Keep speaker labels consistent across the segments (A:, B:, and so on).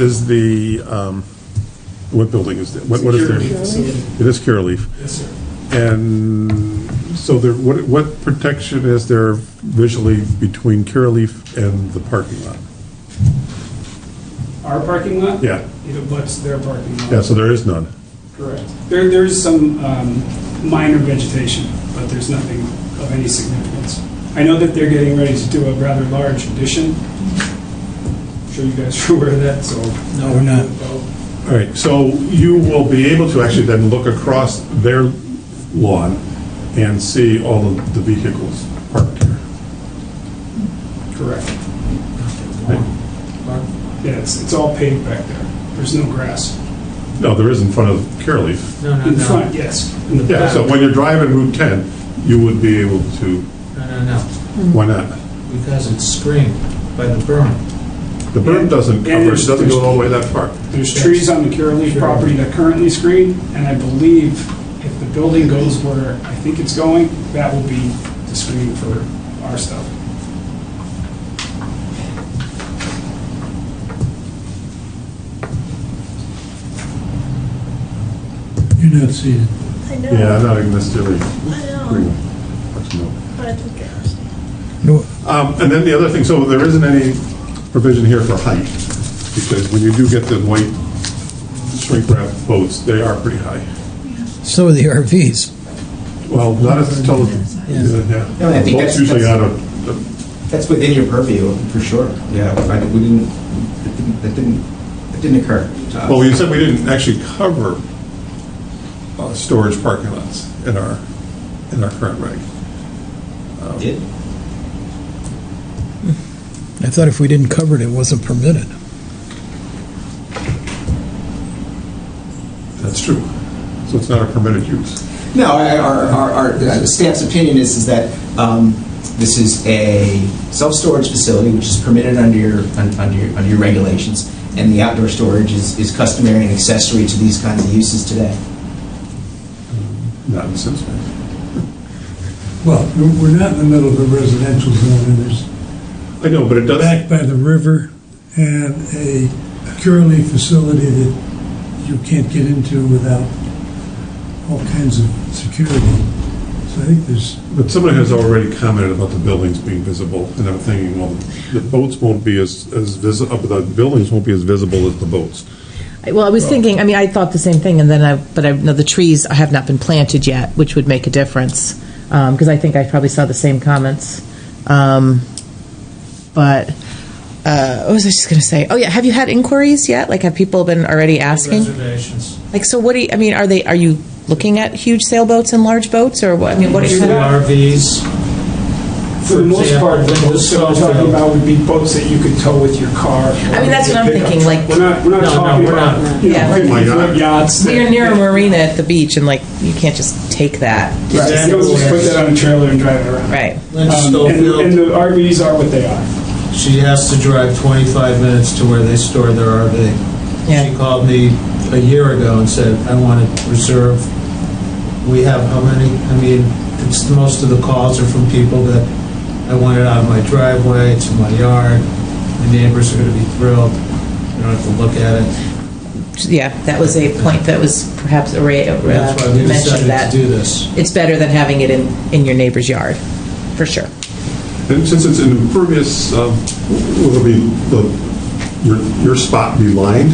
A: is the, um, what building is that? What what is
B: Security facility.
A: there? It is Curaleaf.
B: Yes, sir.
A: And so there, what, what protection is there visually between Curaleaf and the parking lot?
B: Our parking lot?
A: Yeah.
B: It abuts their parking lot.
A: Yeah, so there is none.
B: Correct. There, there's some um, minor vegetation, but there's nothing of any significance. I know that they're getting ready to do a rather large addition. I'm Sure you guys are aware of that, so.
C: No, we're not.
A: All right, so you will be able to actually then look across their lawn and see all of the vehicles parked here.
B: Correct. Yeah, it's, it's all paved back there. There's no grass.
A: No, there is in front of Curaleaf.
D: No, no,
B: In front,
D: no,
B: yes. In the
A: Yeah,
B: back.
A: so when you're driving Route 10, you would be able to,
D: no, no, no,
A: why not?
D: because it's screened by the berm.
A: The berm doesn't
B: And
A: cover, it
B: it's-
A: doesn't go all the way that far.
B: There's trees on the Curaleaf property that currently screen, and I believe if the building goes where I think it's going, that will be the screen for our stuff.
C: You're not seated.
E: I know.
A: Yeah, I'm not even necessarily.
E: I know. I don't get it.
C: No,
A: Um, And then the other thing, so there isn't any provision here for height, because when you do get the white shrink wrap boats, they are pretty high.
C: so are the RVs.
A: Well, not as tall as,
C: Yeah.
A: yeah.
F: No, I think
A: Boats
F: that's-
A: usually out
F: that's-
A: of,
F: That's within your purview, for sure. Yeah, I, we didn't, it didn't, it didn't, it didn't occur to us.
A: well, you said we didn't actually cover uh, storage parking lots in our, in our current reg.
F: It Did?
C: I thought if we didn't cover it, it wasn't permitted.
A: That's true. So it's not a permitted use.
F: No, our, our, our- our uh, staff's opinion is, is that um, this is a self-storage facility, which is permitted under your, un- under your, under your regulations, and the outdoor storage is, is customary and accessory to these kinds of uses today.
A: Not in Simsbury.
G: Well, we're- we're not in the middle of a residential zone, and there's
A: I know, but it does.
G: back by the river and a curly facility that you can't get into without all kinds of security. So I think there's,
A: But someone has already commented about the buildings being visible, and I'm thinking, well, the boats won't be as, as visible, the buildings won't be as visible as the boats.
H: Well, I was
D: Oh.
H: thinking, I mean, I thought the same thing, and then I, but I, no, the trees have not been planted yet, which would make a difference, because I think I probably saw the same comments. Um, But, uh, what was I just going to say? Oh, yeah, have you had inquiries yet? Like, have people been already asking?
D: Reservations.
H: Like, so what do you, I mean, are they, are you looking at huge sailboats and large boats, or what? I mean, what are
D: Two
H: you?
D: RVs,
B: For the most part, the boats that we're talking about would be boats that you could tow with your car.
H: I mean, that's what I'm thinking, like-
B: We're not, we're not
D: No, no,
B: talking
D: we're
B: about,
D: not.
B: you
H: Yeah.
B: know,
A: My God.
B: yachts. that-
H: We are near a marina at the beach, and like, you can't just take that.
B: Right, you don't just put that on a trailer and drive it around.
H: Right.
D: Lynch
B: Um, And and
D: Schofield,
B: the RVs are what they are.
D: she has to drive 25 minutes to where they store their RV.
H: Yeah.
D: She called me a year ago and said, I want to reserve, we have how many? I mean, it's, most of the calls are from people that, I want it out of my driveway, it's in my yard, my neighbors are going to be thrilled, they don't have to look at it.
H: Yeah, that was a point that was perhaps a ra- uh,
D: That's why we
H: mentioned
D: decided
H: that.
D: to do this.
H: it's better than having it in, in your neighbor's yard, for sure.
A: And since it's an impervious, um, will it be, the, your, your spot be lined?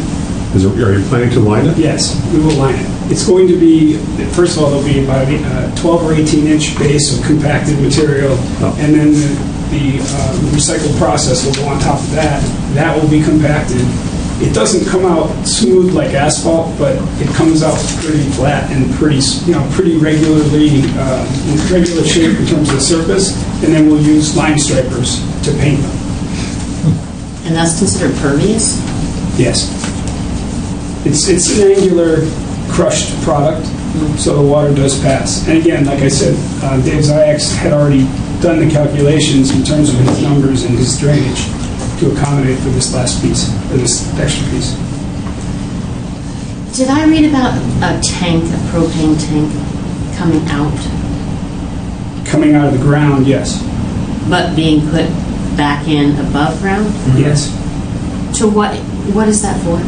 A: Is, it- are you planning to line it?
B: Yes, we will line it. It's going to be, first of all, there'll be about a 12 or 18-inch base of compacted material,
A: Oh.
B: and then the- the um, recycled process will go on top of that. That will be compacted. It doesn't come out smooth like asphalt, but it comes out pretty flat and pretty, s- you know, pretty regularly, uh, in regular shape in terms of the surface, and then we'll use lime stripers to paint them.
I: And that's considered pervious?
B: Yes. It's, it's an angular crushed product, so the water does pass. And again, like I said, uh, Dave Ziyax had already done the calculations in terms of his numbers and his drainage to accommodate for this last piece, or this extra piece.
I: Did I read about a tank, a propane tank coming out,
B: Coming out of the ground, yes.
I: Mm-hmm.
B: Mm-hmm.
I: but being put back in above ground?
B: Yes.
I: To what,
G: What is that for?